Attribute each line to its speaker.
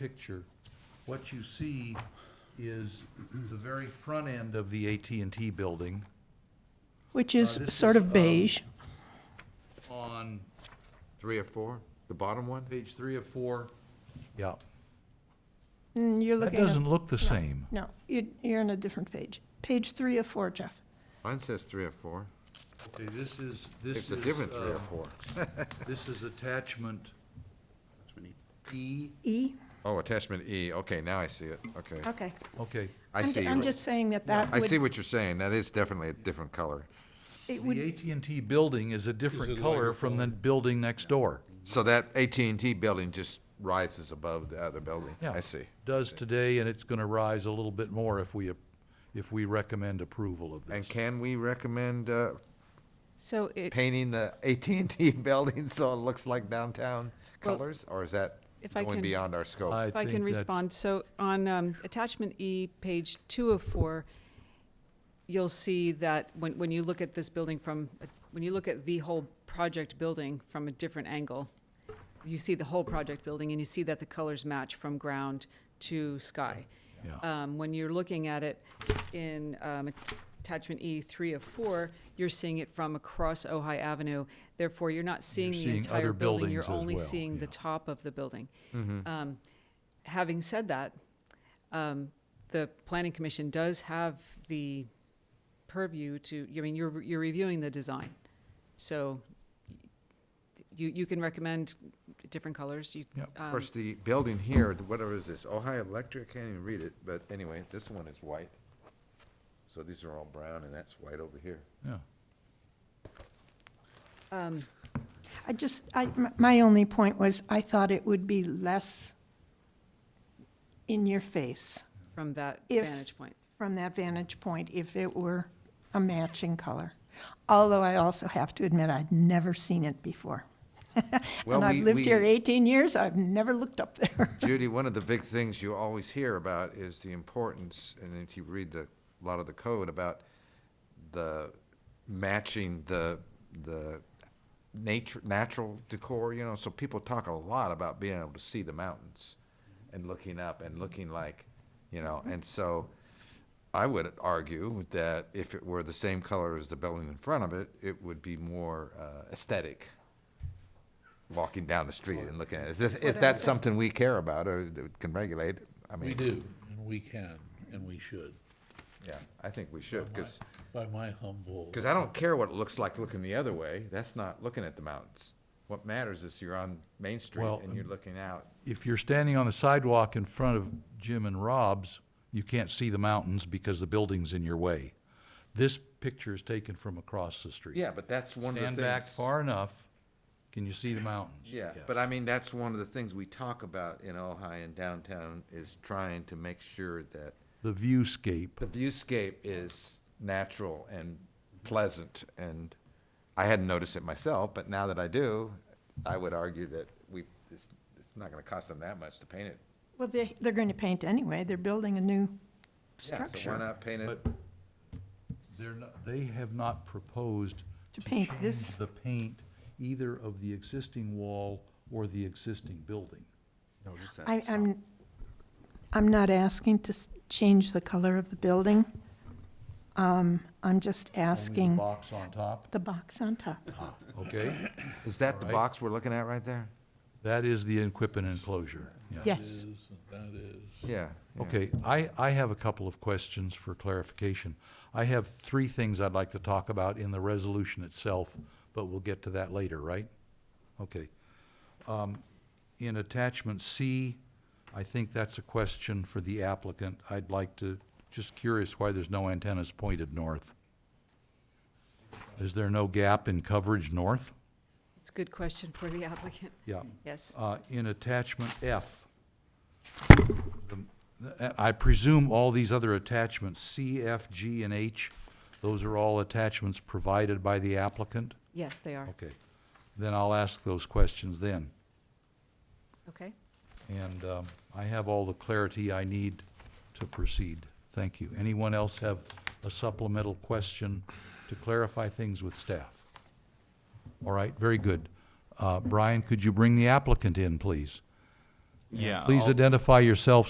Speaker 1: picture, what you see is the very front end of the at and T building
Speaker 2: Uh,
Speaker 3: which is
Speaker 1: this
Speaker 3: sort
Speaker 1: is,
Speaker 2: um,
Speaker 3: of beige.
Speaker 1: on
Speaker 2: Three or four, the bottom one?
Speaker 1: page three of four. Yeah,
Speaker 3: Mm, You're
Speaker 1: that
Speaker 3: looking. at-
Speaker 1: doesn't look the same.
Speaker 3: No, you're, you're on a different page. Page three of four, Jeff.
Speaker 2: Mine says three or four.
Speaker 1: Okay, this is, this is.
Speaker 2: It's a different three or
Speaker 1: um,
Speaker 2: four.
Speaker 1: This is attachment E.
Speaker 3: E?
Speaker 2: Oh, attachment E, okay, now I see it, okay.
Speaker 3: Okay.
Speaker 1: Okay,
Speaker 2: I
Speaker 3: I'm ju-
Speaker 2: see,
Speaker 3: I'm
Speaker 2: what-
Speaker 3: just saying that that
Speaker 2: I see
Speaker 3: would,
Speaker 2: what you're saying, that is definitely a different color.
Speaker 3: it
Speaker 1: the
Speaker 3: would,
Speaker 1: at and T building is a different color from the building next door.
Speaker 2: So that at and T building just rises above the other building,
Speaker 1: Yeah,
Speaker 2: I see.
Speaker 1: Does today, and it's gonna rise a little bit more if we, if we recommend approval of
Speaker 2: And
Speaker 1: this.
Speaker 2: can we recommend uh,
Speaker 4: So it,
Speaker 2: painting the at and T building so it looks like downtown
Speaker 4: Well,
Speaker 2: colors? Or is that
Speaker 4: if I
Speaker 2: going
Speaker 4: can-
Speaker 2: beyond our scope?
Speaker 1: I
Speaker 4: if I
Speaker 1: think
Speaker 4: can
Speaker 1: that's-
Speaker 4: respond, so on um, attachment E, page two of four, you'll see that when, when you look at this building from, when you look at the whole project building from a different angle, you see the whole project building and you see that the colors match from ground to sky.
Speaker 1: Yeah.
Speaker 4: Um, When you're looking at it in um, att- attachment E three of four, you're seeing it from across Ojai Avenue. Therefore, you're not seeing the
Speaker 1: seeing
Speaker 4: entire
Speaker 1: other
Speaker 4: building, you're
Speaker 1: buildings as
Speaker 4: only
Speaker 1: well,
Speaker 4: seeing the
Speaker 1: yeah.
Speaker 4: top of the building. Um, Having said that, um, the planning commission does have the purview to, I mean, you're, you're reviewing the design. So you, you can recommend different colors, you.
Speaker 1: Yep.
Speaker 2: Of
Speaker 4: um,
Speaker 2: course, the building here, the- whatever is this, Ohio Electric, I can't even read it, but anyway, this one is white. So these are all brown and that's white over here.
Speaker 1: Yeah.
Speaker 3: I just, I, m- my only point was, I thought it would be less in your face
Speaker 4: From that
Speaker 3: If-
Speaker 4: vantage point.
Speaker 3: from that vantage point if it were a matching color. Although I also have to admit, I'd never seen it before.
Speaker 2: Well,
Speaker 3: And I've
Speaker 2: we-
Speaker 3: lived here
Speaker 2: we-
Speaker 3: 18 years, I've never looked up there.
Speaker 2: Judy, one of the big things you always hear about is the importance, and if you read the, a lot of the code about the matching the, the nature, natural decor, you know, so people talk a lot about being able to see the mountains and looking up and looking like, you know, and so I would argue that if it were the same color as the building in front of it, it would be more uh, aesthetic walking down the street and looking at it. If- If that's something we care about or that can regulate, I
Speaker 5: We
Speaker 2: mean,
Speaker 5: do, and we can, and we should.
Speaker 2: yeah, I think we should, because,
Speaker 5: By my humble.
Speaker 2: I don't care what it looks like looking the other way. That's not looking at the mountains. What matters is you're on Main Street
Speaker 1: Well,
Speaker 2: and you're looking out.
Speaker 1: If you're standing on the sidewalk in front of Jim and Rob's, you can't see the mountains because the building's in your way. This picture is taken from across the street.
Speaker 2: Yeah, but that's one of the
Speaker 1: Stand
Speaker 2: things.
Speaker 1: back far enough, can you see the mountains?
Speaker 2: Yeah, but I mean, that's one of the things we talk about in Ojai and downtown is trying to make sure that
Speaker 1: The viewscape.
Speaker 2: the viewscape is natural and pleasant, and I hadn't noticed it myself, but now that I do, I would argue that we, it's, it's not gonna cost them that much to paint it.
Speaker 3: Well, they, they're going to paint anyway, they're building a new
Speaker 2: Yeah, So why
Speaker 3: structure.
Speaker 2: not paint it?
Speaker 1: But they're not, they have not proposed
Speaker 3: To paint
Speaker 1: change
Speaker 3: this.
Speaker 1: The paint either of the existing wall or the existing building.
Speaker 3: I, I'm, I'm not asking to s- change the color of the building. Um, I'm just
Speaker 1: Only the
Speaker 3: asking
Speaker 1: box on top,
Speaker 3: the box on top.
Speaker 1: okay?
Speaker 2: Is that the
Speaker 1: Alright.
Speaker 2: box we're looking at right there?
Speaker 1: That is the Inquippin enclosure, yeah.
Speaker 5: That
Speaker 3: Yes,
Speaker 5: is, that is.
Speaker 2: Yeah. yeah.
Speaker 1: Okay, I, I have a couple of questions for clarification. I have three things I'd like to talk about in the resolution itself, but we'll get to that later, right? Okay. Um, In attachment C, I think that's a question for the applicant. I'd like to, just curious why there's no antennas pointed north. Is there no gap in coverage north?
Speaker 4: It's a good question for the applicant,
Speaker 1: Yeah.
Speaker 4: yes.
Speaker 1: Uh, in attachment F, the- I presume all these other attachments, C, F, G, and H, those are all attachments provided by the applicant?
Speaker 4: Yes, they are,
Speaker 1: Okay, then I'll ask those questions then.
Speaker 4: okay?
Speaker 1: And um, I have all the clarity I need to proceed. Thank you. Anyone else have a supplemental question to clarify things with staff? All right, very good. Uh, Brian, could you bring the applicant in, please?
Speaker 6: Yeah.
Speaker 1: Please
Speaker 6: I'll-
Speaker 1: identify yourself